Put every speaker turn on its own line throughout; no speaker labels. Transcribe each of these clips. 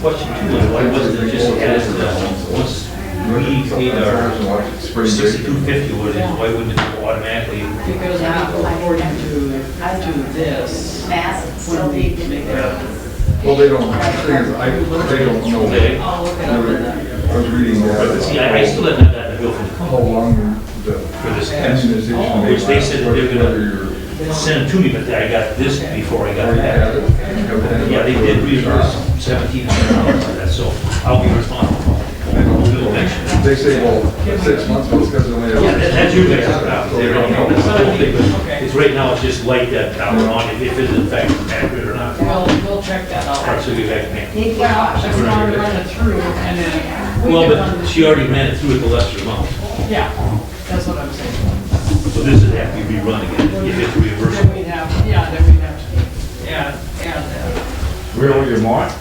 question too, is why wasn't it just passed, uh, once we paid our sixty-two fifty, what it is, why wouldn't it go automatically?
Because we go according to, to this,
Mass, it's
when
still
we
need
make
to
it.
be.
Well, they don't, the thing is, I, they don't know.
Okay.
I'll look it
I
up in
was-
the.
I was reading
But see, I, I still
that,
have not gotten a bill from the
how
company
long the
for this test,
amortization may last.
which they said that they're
whether you're-
gonna send it to me, but I got this before I got
Or you had
that.
it, you have it.
Yeah, they did reimburse seventeen hundred dollars for that, so I'll be responsible.
They
We'll do it
don't-
next year.
They say, well, six months, well, it's because they only have.
Yeah, that- that's your guys' problem, they don't know, that's not a big,
Okay.
it's right now, it's just light that power on, if if it's in fact accurate or not. All
We'll, we'll check that
right,
out.
so we back to me.
Need to be
Well,
cautious.
she's gonna run it through and then. we
Well,
can run
but
the-
she already ran it through at the lesser amount,
Yeah, that's what I'm saying.
so this would have to be rerun again, if it's
Then
reimbursable.
we'd have, yeah, then we'd have to, yeah, yeah.
Really, you want?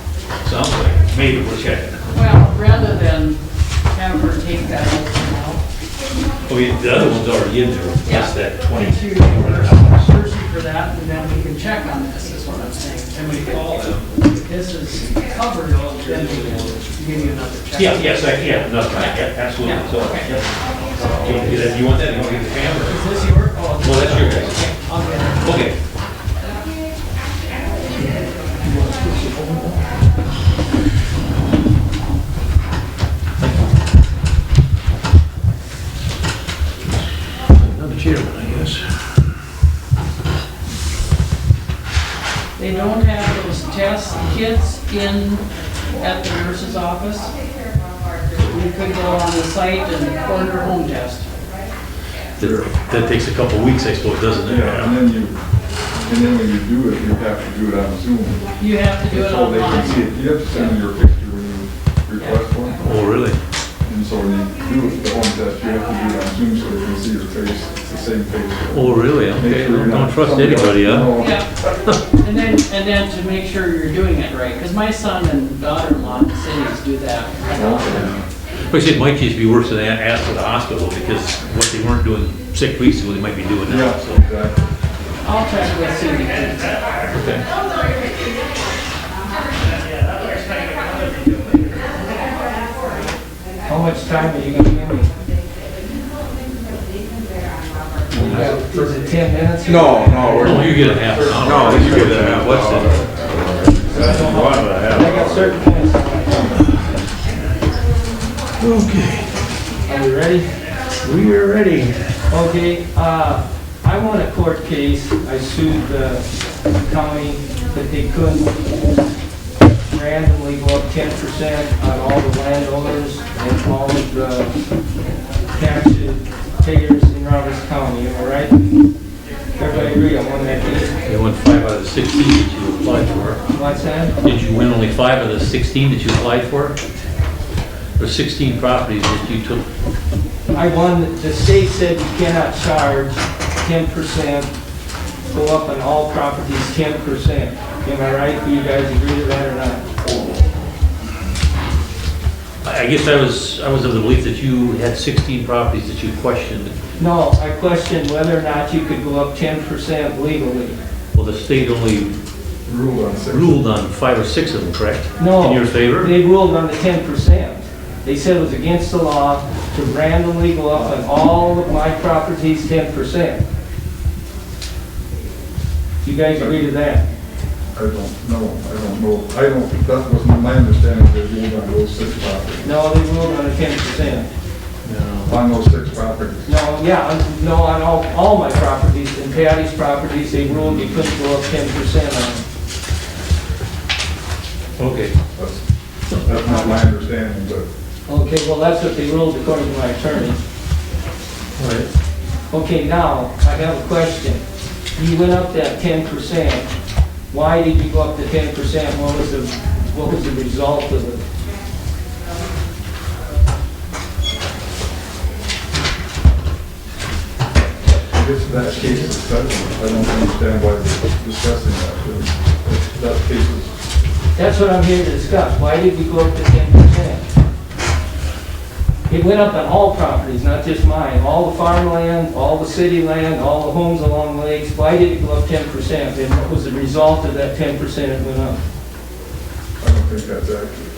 Sounds like, maybe we'll check.
Well, rather than have her take that whole thing
Oh, yeah, the other one's already in there, that's that
out.
twenty.
If you reimburse Percy uh, for that, and then we can check on this, is what I'm saying. Then we call them, if this is covered, then we can give you another check.
Yeah, yes, I can, no, I can, absolutely, so, yeah. Do you want to do that? Do you want that, you want to get the camera?
Is this your, oh.
Well, that's your guys'.
Okay, I'll get it.
Okay. Another chairman, I guess.
They don't have those test kits in, at the nurse's office. We could go on the site and order home test.
That takes a couple of weeks, I suppose, doesn't it?
Yeah, and then you, and then when you do it, you have to do it on Zoom.
You have to do it
So they can see
online.
it. You have to send them your picture when you request one.
Oh, really?
And so when you do it, the home test, you have to do it on Zoom so they can see your face, it's the same face.
Oh, really?
Make
Okay,
sure you're
don't
not-
don't trust anybody, huh?
No.
Yeah. And then, and then to make sure you're doing it right, because my son and daughter-in-law in the cities do that.
Like I said, it might just be worse than a- ask for the hospital, because what they weren't doing six weeks ago, they might be doing now,
Yeah,
so.
exactly.
I'll check with Cindy. too.
How much time are you gonna give me? Was it ten minutes?
No, no,
Oh,
we're,
you get a half an hour.
no, you give it a half
What's
hour.
that?
One and a half
I got
hour.
certain things. Okay. Are we ready? We are ready. Okay, uh, I won a court case. I sued the county that they couldn't randomly go up ten percent on all the landowners and all of the tax payers in Roberts County, am I right? Everybody agree I won that case?
You won five out of the 16 that you applied for.
What's that?
Did you win only five out of the 16 that you applied for? Or 16 properties that you took?
I won, the state said you cannot charge ten percent, go up on all properties ten percent. Am I right? Do you guys agree to that or not?
I I guess I was, I was of the belief that you had 16 properties that you questioned.
No, I questioned whether or not you could go up ten percent legally.
Well, the state only
Rule on six.
ruled on five or six of them, correct?
No.
In your favor?
They ruled on the ten percent. They said it was against the law to randomly go up on all of my properties ten percent. You guys agree to that?
I don't know, I don't know, I don't, that wasn't my understanding, they ruled on those six properties,
No, they ruled on the ten percent.
on those six properties.
No, yeah, on- no, on all, all my properties, and Patty's properties, they ruled you couldn't go up ten percent on.
Okay.
That's, that's not my understanding, but
Okay, well, that's what they ruled according to my attorney.
All right.
Okay, now, I have a question. You went up that ten percent. Why did you go up to ten percent? What was the, what was the result of it?
I guess that case is settled. I don't understand why we're discussing that, but that case is,
That's what I'm here to discuss. Why did we go up to ten percent? It went up on all properties, not just mine, all the farmland, all the city land, all the homes along the lakes. Why did it go up ten percent? And what was the result of that ten percent it went
I
up?
don't think that's accurate.